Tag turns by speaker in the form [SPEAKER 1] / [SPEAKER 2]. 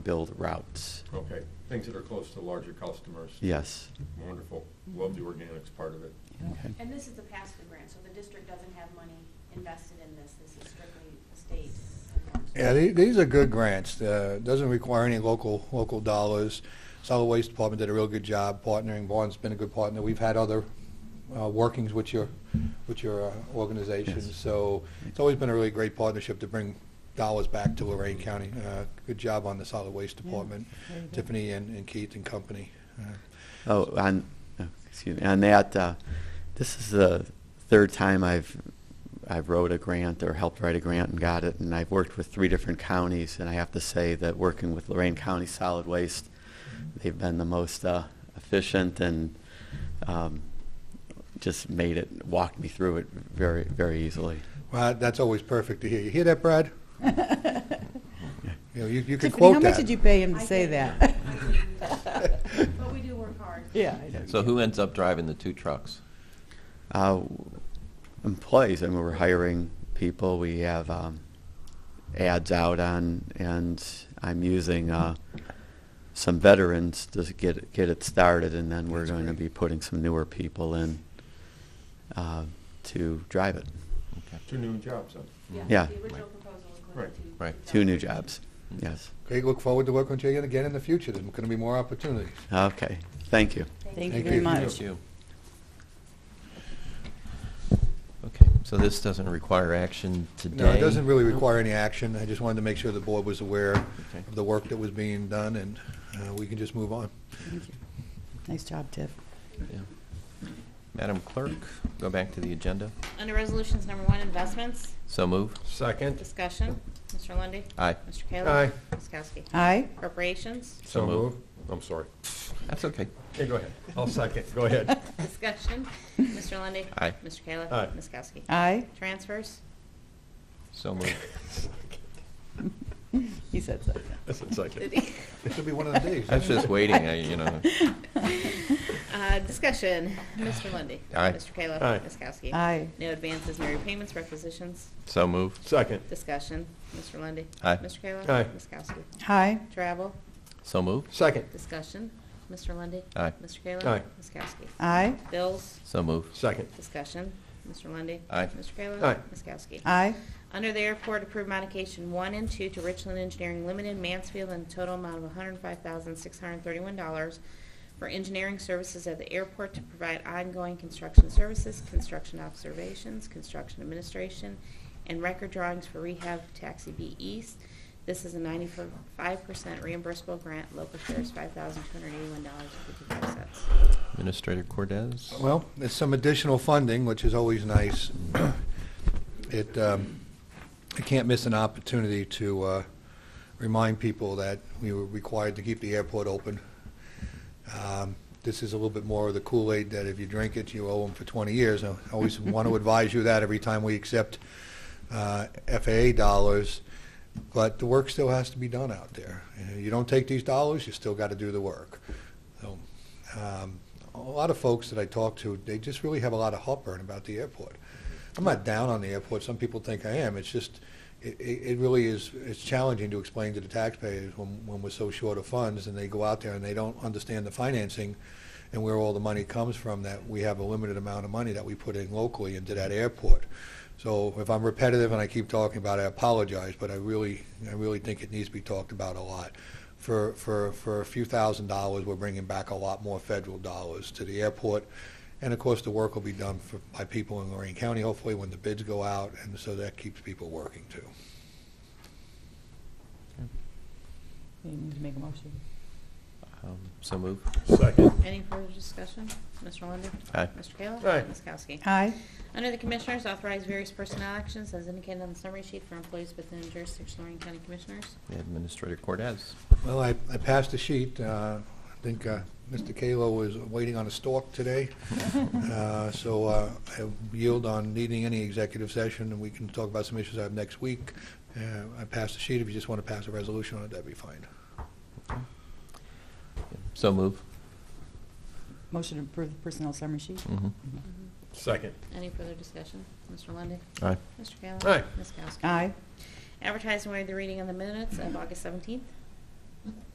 [SPEAKER 1] build routes.
[SPEAKER 2] Okay, things that are close to larger customers.
[SPEAKER 1] Yes.
[SPEAKER 2] Wonderful. Love the organics part of it.
[SPEAKER 1] Okay.
[SPEAKER 3] And this is the pass-through grant, so the district doesn't have money invested in this. This is strictly state.
[SPEAKER 4] Yeah, the- these are good grants. Uh, Doesn't require any local, local dollars. Solid Waste Department did a real good job partnering. Vaughn's been a good partner. We've had other uh, workings with your, with your uh, organization.
[SPEAKER 1] Yes.
[SPEAKER 4] So it's always been a really great partnership to bring dollars back to Lorraine County. Uh, Good job on the Solid Waste Department, Tiffany and and Keith and company. Uh,
[SPEAKER 1] Oh, on, oh, excuse me, on that, uh, this is the third time I've, I've wrote a grant or helped write a grant and got it, and I've worked with three different counties, and I have to say that working with Lorraine County Solid Waste, they've been the most, uh, efficient and, um, just made it, walked me through it very, very easily.
[SPEAKER 4] Well, that's always perfect to hear. You hear that, Brad? You know, you- you can
[SPEAKER 5] Tiffany,
[SPEAKER 4] quote
[SPEAKER 5] how
[SPEAKER 4] that.
[SPEAKER 5] much did you pay him to
[SPEAKER 3] I
[SPEAKER 5] say
[SPEAKER 3] paid
[SPEAKER 5] that?
[SPEAKER 3] But we do work hard.
[SPEAKER 5] Yeah. I know.
[SPEAKER 6] So who ends up driving the two trucks?
[SPEAKER 1] Uh, employees, I mean, we're hiring people. We have um, ads out on, and I'm using uh, some veterans to get get it started, and then we're
[SPEAKER 4] That's
[SPEAKER 1] going to be
[SPEAKER 4] great.
[SPEAKER 1] putting some newer people in uh, to drive it.
[SPEAKER 2] Two new jobs, huh?
[SPEAKER 1] Yeah.
[SPEAKER 3] The original proposal included
[SPEAKER 2] Right.
[SPEAKER 3] two.
[SPEAKER 6] Right.
[SPEAKER 1] Two new jobs. Yes.
[SPEAKER 4] Great, look forward to working with you again in the future. There's going to be more opportunities.
[SPEAKER 1] Okay. Thank you.
[SPEAKER 5] Thank you
[SPEAKER 4] Thank
[SPEAKER 5] very
[SPEAKER 4] you.
[SPEAKER 5] much.
[SPEAKER 6] Thank you. Okay, so this doesn't require action today?
[SPEAKER 4] No, it doesn't really require any action. I just wanted to make sure the board was aware
[SPEAKER 6] Okay.
[SPEAKER 4] of the work that was being done, and uh, we can just move on.
[SPEAKER 5] Thank you. Nice job, Tiff.
[SPEAKER 6] Yeah. Madam Clerk, go back to the agenda.
[SPEAKER 7] Under Resolutions Number One, Investments,
[SPEAKER 6] So move.
[SPEAKER 2] Second.
[SPEAKER 7] Discussion, Mr. Lundy,
[SPEAKER 6] Aye.
[SPEAKER 7] Mr. Kayla.
[SPEAKER 2] Aye.
[SPEAKER 7] Ms. Kowski.
[SPEAKER 5] Aye.
[SPEAKER 7] Appropriations,
[SPEAKER 6] So moved.
[SPEAKER 2] I'm sorry.
[SPEAKER 6] That's okay.
[SPEAKER 2] Okay, go ahead. I'll second. Go ahead.
[SPEAKER 7] Discussion, Mr. Lundy,
[SPEAKER 6] Aye.
[SPEAKER 7] Mr. Kayla.
[SPEAKER 2] Aye.
[SPEAKER 7] Ms. Kowski.
[SPEAKER 5] Aye.
[SPEAKER 7] Transfers,
[SPEAKER 6] So moved.
[SPEAKER 5] He said so.
[SPEAKER 2] I said second.
[SPEAKER 4] This will be one of the days.
[SPEAKER 6] I was just waiting, I- you know.
[SPEAKER 7] Uh, discussion, Mr. Lundy,
[SPEAKER 6] Aye.
[SPEAKER 7] Mr. Kayla.
[SPEAKER 2] Aye.
[SPEAKER 7] Ms. Kowski.
[SPEAKER 5] Aye.
[SPEAKER 7] No advances, no repayments, requisitions,
[SPEAKER 6] So move.
[SPEAKER 2] Second.
[SPEAKER 7] discussion, Mr. Lundy,
[SPEAKER 6] Aye.
[SPEAKER 7] Mr. Kayla.
[SPEAKER 2] Aye.
[SPEAKER 7] Ms. Kowski.
[SPEAKER 5] Aye.
[SPEAKER 7] Travel,
[SPEAKER 6] So move.
[SPEAKER 2] Second.
[SPEAKER 7] discussion, Mr. Lundy,
[SPEAKER 6] Aye.
[SPEAKER 7] Mr. Kayla.
[SPEAKER 2] Aye.
[SPEAKER 7] Ms. Kowski.
[SPEAKER 5] Aye.
[SPEAKER 7] Bills,
[SPEAKER 6] So move.
[SPEAKER 2] Second.
[SPEAKER 7] discussion, Mr. Lundy,
[SPEAKER 6] Aye.
[SPEAKER 7] Mr. Kayla.
[SPEAKER 2] Aye.
[SPEAKER 7] Ms. Kowski.
[SPEAKER 5] Aye.
[SPEAKER 7] Under the airport, approve modification one and two to Richland Engineering Limited, Mansfield, in a total amount of $105,631 for engineering services at the airport to provide ongoing construction services, construction observations, construction administration, and record drawings for rehab taxi B East. This is a 95% reimbursable grant, local share is $5,281.55.
[SPEAKER 6] Administrator Cordez?
[SPEAKER 4] Well, it's some additional funding, which is always nice. It, um, I can't miss an opportunity to uh, remind people that we were required to keep the airport open. Um, This is a little bit more of the Kool-Aid that if you drink it, you owe them for 20 years. I always want to advise you that every time we accept uh, FAA dollars, but the work still has to be done out there. You know, You don't take these dollars, you still got to do the work. So, um, a lot of folks that I talk to, they just really have a lot of heartburn about the airport. I'm not down on the airport. Some people think I am. It's just, it, it it really is, it's challenging to explain to the taxpayers when, when we're so short of funds and they go out there and they don't understand the financing and where all the money comes from, that we have a limited amount of money that we put in locally into that airport. So if I'm repetitive and I keep talking about it, I apologize, but I really, I really think it needs to be talked about a lot. For, for, for a few thousand dollars, we're bringing back a lot more federal dollars to the airport. And of course, the work will be done for, by people in Lorraine County, hopefully, when the bids go out, and so that keeps people working too.
[SPEAKER 5] You need to make a motion.
[SPEAKER 6] Um, So move.
[SPEAKER 2] Second.
[SPEAKER 7] Any further discussion? Mr. Lundey?
[SPEAKER 6] Aye.
[SPEAKER 7] Mr. Kayla?
[SPEAKER 2] Aye.
[SPEAKER 7] Ms. Kowski.
[SPEAKER 5] Aye.
[SPEAKER 7] Under the Commissioners, authorize various personnel actions as indicated on the summary sheet for employees within jurisdiction of Lorraine County Commissioners.
[SPEAKER 6] Administrator Cordez?
[SPEAKER 4] Well, I, I passed the sheet. Uh, I think uh, Mr. Kalo was waiting on a stalk today. Uh, So uh, I yield on needing any executive session, and we can talk about some issues I have next week. Uh, I passed the sheet. If you just want to pass a resolution on it, that'd be fine.
[SPEAKER 6] So move.
[SPEAKER 5] Motion to approve the personnel summary sheet.
[SPEAKER 6] Mhm.
[SPEAKER 2] Second.
[SPEAKER 7] Any further discussion? Mr. Lundy,
[SPEAKER 6] Aye.
[SPEAKER 7] Mr. Kayla?
[SPEAKER 2] Aye.
[SPEAKER 7] Ms. Kowski.
[SPEAKER 5] Aye.
[SPEAKER 7] Advertise and waive the reading on the minutes of August 17th.